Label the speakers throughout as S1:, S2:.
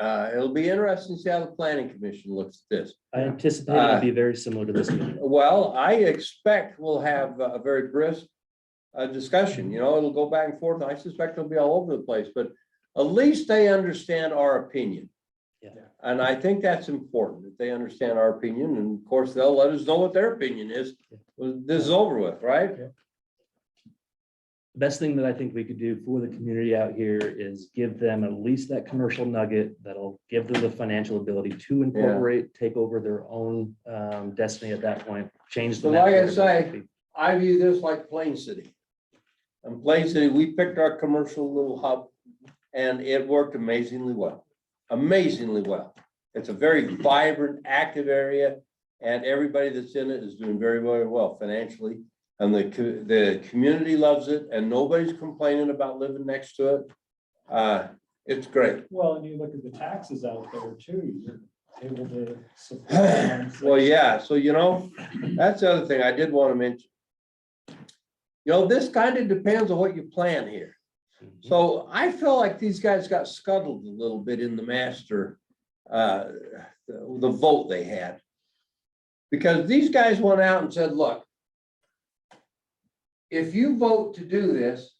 S1: Uh, it'll be interesting to see how the planning commission looks at this.
S2: I anticipate
S1: Uh,
S2: it'll be very similar to this meeting.
S1: Well, I expect we'll have a very brisk uh, discussion, you know, it'll go back and forth. I suspect it'll be all over the place, but at least they understand our opinion.
S2: Yeah.
S1: And I think that's important, that they understand our opinion, and of course, they'll let us know what their opinion is. when This is over with, right?
S2: Best thing that I think we could do for the community out here is give them at least that commercial nugget that'll give them the financial ability to incorporate, take over their own um, destiny at that point, change the.
S1: So
S2: map
S1: like I
S2: wherever that
S1: say-
S2: be.
S1: I view this like Plain City. And Plain City, we picked our commercial little hub and it worked amazingly well, amazingly well. It's a very vibrant, active area and everybody that's in it is doing very, very well financially. And the, co- the community loves it and nobody's complaining about living next to it. Uh, it's great.
S3: Well, and you look at the taxes out there too, you're able to. support
S1: Well, yeah, so you know, that's the other thing I did want to mention. You know, this kind of depends on what you plan here. So I feel like these guys got scuttled a little bit in the master, uh, the the vote they had. Because these guys went out and said, look, if you vote to do this,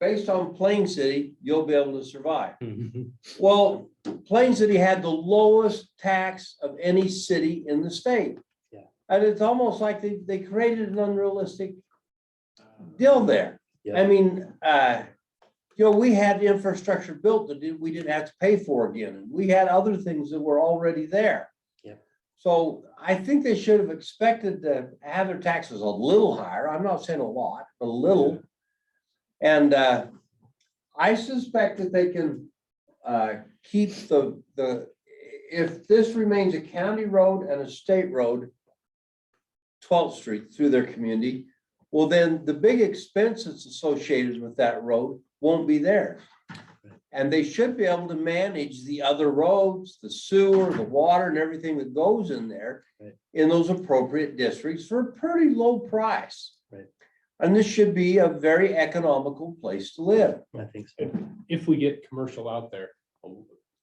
S1: based on Plain City, you'll be able to survive.
S2: Mhm.
S1: Well, Plain City had the lowest tax of any city in the state.
S2: Yeah.
S1: And it's almost like they, they created an unrealistic deal there. I
S2: Yeah.
S1: mean, uh, you know, we had the infrastructure built that did- we didn't have to pay for again. and We had other things that were already there.
S2: Yeah.
S1: So I think they should have expected to have their taxes a little higher. I'm not saying a lot, a little. And, uh, I suspect that they can, uh, keep the, the, if this remains a county road and a state road, 12th Street through their community, well, then the big expenses associated with that road won't be there. And they should be able to manage the other roads, the sewer, the water and everything that goes in there
S2: Right.
S1: in those appropriate districts for a pretty low price.
S2: Right.
S1: And this should be a very economical place to live.
S2: I think so.
S4: If, if we get commercial out there,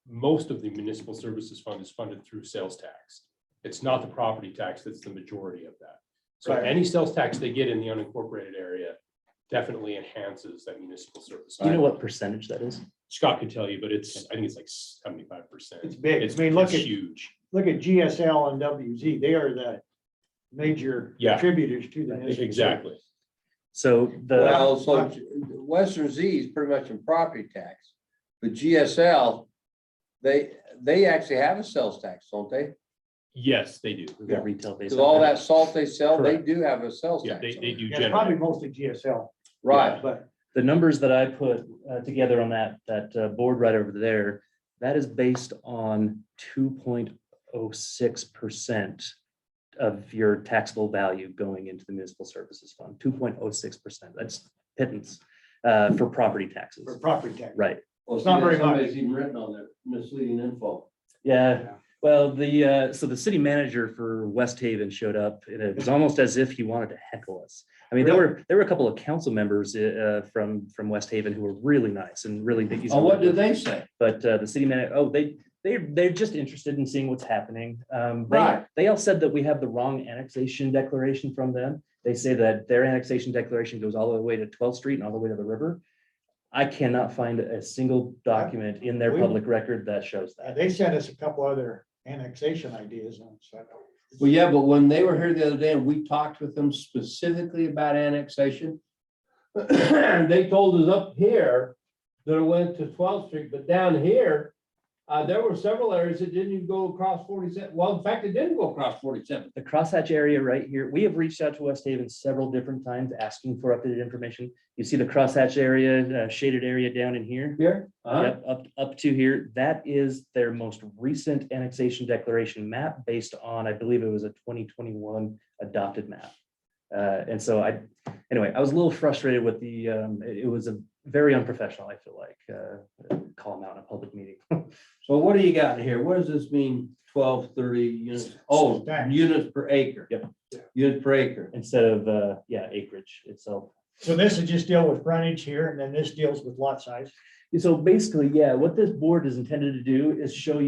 S4: most of the municipal services fund is funded through sales tax. It's not the property tax, that's the majority of that. So
S1: Right.
S4: any sales tax they get in the unincorporated area definitely enhances that municipal service.
S2: Do you know what percentage that is?
S4: Scott could tell you, but it's, I think it's like seventy-five percent.
S5: It's big. I mean, look at-
S4: Huge.
S5: look at GSL and WZ, they are the major
S4: Yeah.
S5: contributors to the. municipal
S4: Exactly.
S2: So the,
S1: Well, so Western Z is pretty much in property tax, but GSL, they, they actually have a sales tax, don't they?
S4: Yes, they do.
S2: the retail base.
S1: Because all that salt they sell, they
S4: Correct.
S1: do have a sales
S4: Yeah,
S1: tax.
S4: they,
S1: on
S4: they
S1: it.
S4: do
S5: service. Yeah, it's probably
S4: generate.
S5: mostly GSL,
S1: Right,
S5: but
S2: the numbers that I put uh, together on that, that uh, board right over there, that is based on two point oh six percent of your taxable value going into the municipal services fund, two point oh six percent. That's pittance uh, for property
S5: for
S2: taxes.
S5: property tax.
S2: Right.
S1: Well,
S5: It's not
S1: see,
S5: very
S1: somebody's
S5: much.
S1: even written on there, misleading info.
S2: Yeah. Well, the, uh, so the city manager for West Haven showed up and it was almost as if he wanted to heckle us. I mean, there were, there were a couple of council members uh, from, from West Haven who were really nice and really. big.
S1: Oh, what did they say?
S2: But uh, the city manager, oh, they, they, they're just interested in seeing what's happening. Um, they,
S1: Right.
S2: they all said that we have the wrong annexation declaration from them. They say that their annexation declaration goes all the way to 12th Street and all the way to the river. I cannot find a single document in their
S5: We-
S2: public record that shows
S5: Uh,
S2: that.
S5: They sent us a couple other annexation ideas on, so.
S1: Well, yeah, but when they were here the other day and we talked with them specifically about annexation, they told us up here that it went to 12th Street, but down here, uh, there were several areas that didn't even go across 47. Well, in fact, it didn't go across 47.
S2: The crosshatch area right here, we have reached out to West Haven several different times asking for updated information. You see the crosshatch area, uh, shaded area down in here?
S1: Here?
S2: Yep, up, up to here. That is their most recent annexation declaration map based on, I believe it was a twenty twenty-one adopted map. Uh, and so I, anyway, I was a little frustrated with the, um, it, it was a very unprofessional, I feel like, uh, call them out in a public meeting.
S1: So what do you got here? What does this mean, 12, 30 units? Oh,
S5: Stacks.
S1: units per acre.
S2: Yep.
S1: Units per acre.
S2: Instead of, uh, yeah, acreage itself.
S5: So this is just deal with frontage here, and then this deals with lot size.
S2: So basically, yeah, what this board is intended to do is show you.